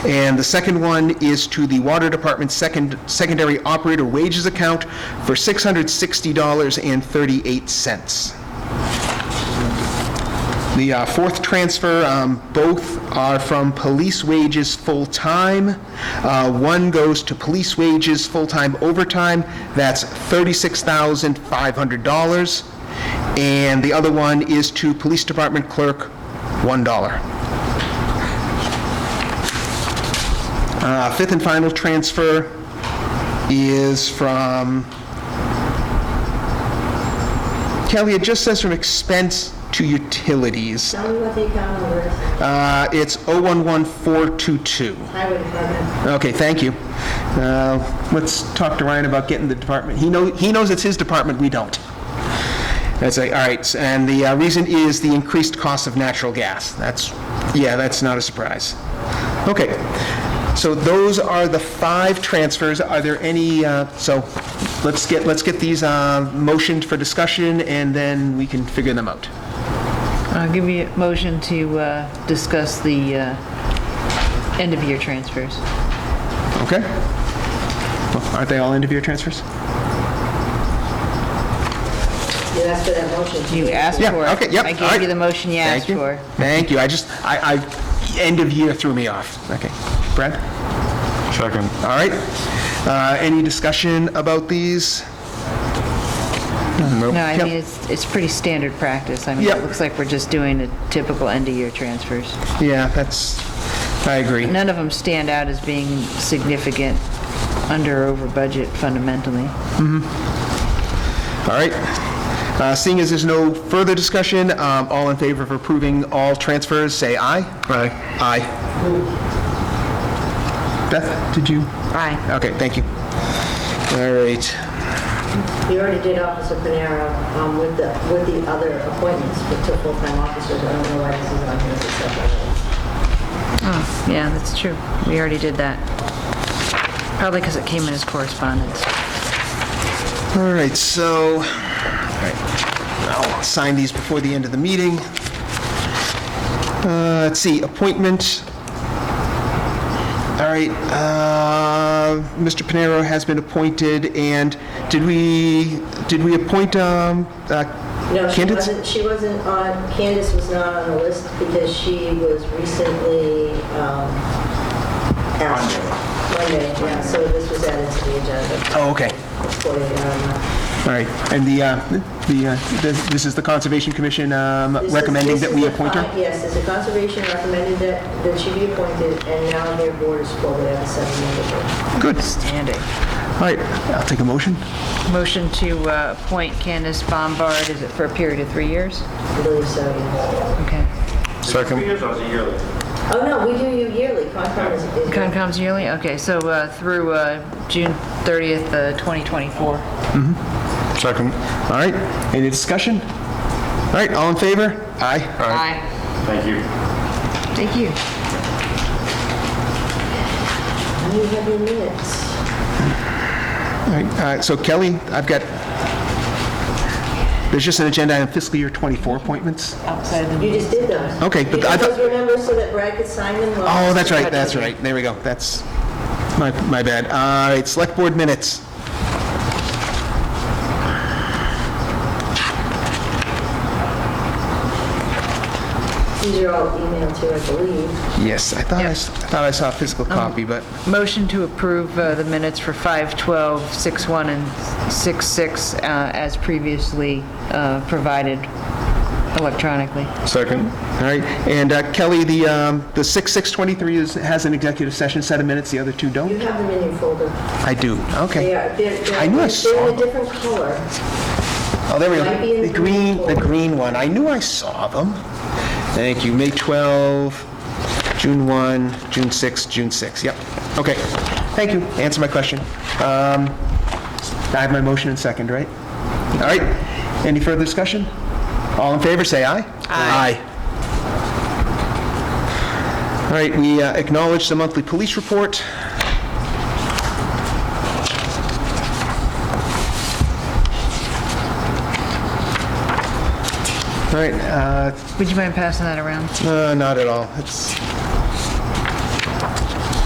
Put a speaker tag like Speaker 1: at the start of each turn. Speaker 1: And the second one is to the Water Department's second, secondary operator wages account for $660.38. The uh, fourth transfer, um, both are from police wages full-time. Uh, One goes to police wages full-time overtime, that's $36,500. And the other one is to police department clerk, $1. Uh, Fifth and final transfer is from, Kelly, it just says from expense to utilities.
Speaker 2: Tell me what the account number is.
Speaker 1: Uh, It's 011422.
Speaker 2: Highway Department.
Speaker 1: Okay, thank you. Uh, Let's talk to Ryan about getting the department. He knows, he knows it's his department, we don't. That's like, all right, and the uh, reason is the increased cost of natural gas. That's, yeah, that's not a surprise. Okay, so those are the five transfers. Are there any, uh, so let's get, let's get these uh, motioned for discussion, and then we can figure them out.
Speaker 3: I'll give you a motion to uh, discuss the uh, end-of-year transfers.
Speaker 1: Okay? Well, Aren't they all end-of-year transfers?
Speaker 2: You asked for that motion.
Speaker 3: You asked for it.
Speaker 1: Yeah, okay, yep.
Speaker 3: I
Speaker 1: all
Speaker 3: gave
Speaker 1: right.
Speaker 3: you the motion you
Speaker 1: Thank
Speaker 3: asked for.
Speaker 1: Thank you, I just, I, I, end of year threw me off. Okay, Brad?
Speaker 4: Second.
Speaker 1: All right. Uh, Any discussion about these?
Speaker 3: No, I
Speaker 1: Yep.
Speaker 3: mean, it's, it's pretty standard practice. I mean,
Speaker 1: Yep.
Speaker 3: it looks like we're just doing the typical end-of-year transfers.
Speaker 1: Yeah, that's, I agree.
Speaker 3: None of them stand out as being significant under or over budget fundamentally.
Speaker 1: All right. Uh, Seeing as there's no further discussion, um, all in favor of approving all transfers, say aye. Aye. Aye. Beth, did you?
Speaker 3: Aye.
Speaker 1: Okay, thank you. All right.
Speaker 2: You already did Officer Panero um, with the, with the other appointments for two full-time officers. I don't know why this is on here as a separate.
Speaker 3: Oh, yeah, that's true. We already did that. Probably because it came in as correspondence.
Speaker 1: All right, so, all right, I'll sign these before the end of the meeting. Uh, Let's see, appointment. All right, uh, Mr. Panero has been appointed, and did we, did we appoint um, uh,
Speaker 2: No, she
Speaker 1: candidates?
Speaker 2: wasn't, she wasn't on, Candace was not on the list because she was recently um, asked. Monday, yeah, so this was added to the agenda
Speaker 1: Oh, okay,
Speaker 2: for the, um,
Speaker 1: all right, and the, uh, the, uh, this- this is the Conservation Commission um,
Speaker 2: This is-
Speaker 1: recommending
Speaker 2: this
Speaker 1: that
Speaker 2: is
Speaker 1: we
Speaker 2: the
Speaker 1: appoint
Speaker 2: con-
Speaker 1: her?
Speaker 2: Yes, it's a conservation recommended that, that she be appointed, and now their board is full, they have a seven-member board.
Speaker 1: Good,
Speaker 3: Standing.
Speaker 1: all right, I'll take a motion.
Speaker 3: Motion to uh, appoint Candace Bombard, is it for a period of three years?
Speaker 2: I believe so, yes.
Speaker 3: Okay.
Speaker 4: Second.
Speaker 5: years or is it yearly?
Speaker 2: Oh, no, we do you yearly, Concom is, is-
Speaker 3: Concom's yearly, okay, so uh, through uh, June 30th, uh, 2024.
Speaker 4: Second.
Speaker 1: All right, any discussion? All right, all in favor? Aye.
Speaker 3: Aye.
Speaker 5: Thank you.
Speaker 3: Thank you.
Speaker 2: you have your minutes.
Speaker 1: All right, uh, so Kelly, I've got, there's just an agenda on fiscal year 24 appointments.
Speaker 3: Outside of the
Speaker 2: You just did those.
Speaker 1: Okay, but
Speaker 2: You
Speaker 1: I
Speaker 2: did
Speaker 1: thought-
Speaker 2: those, remember, so that Brad could sign them? while-
Speaker 1: Oh, that's right, that's right, there we go, that's my, my bad. All right, select board minutes.
Speaker 2: These are all emailed to, I believe.
Speaker 1: Yes, I thought I, s- I thought I saw a physical copy, but,
Speaker 3: Motion to approve uh, the minutes for 5:12, 6:1, and 6:6 uh, as previously uh, provided electronically.
Speaker 4: Second.
Speaker 1: all right. And uh, Kelly, the, um, the 6623 is, has an executive session set of minutes, the other two
Speaker 2: You
Speaker 1: don't?
Speaker 2: have them in your folder.
Speaker 1: I do,
Speaker 2: They
Speaker 1: okay.
Speaker 2: are, they're, they're
Speaker 1: I knew I saw
Speaker 2: they're in a different color.
Speaker 1: Oh, there we
Speaker 2: Might be
Speaker 1: go.
Speaker 2: in
Speaker 1: The green, the
Speaker 2: green.
Speaker 1: green one. I knew I saw them. Thank you. May 12, June 1, June 6, June 6. Yep. Okay. Thank you. Answer my question. Um, I have my motion and second, right? All right. Any further discussion? All in favor, say aye. Aye. All right, we uh, acknowledge the monthly police report. All right, uh,
Speaker 3: Would you mind passing that around?
Speaker 1: Uh, not at all. It's,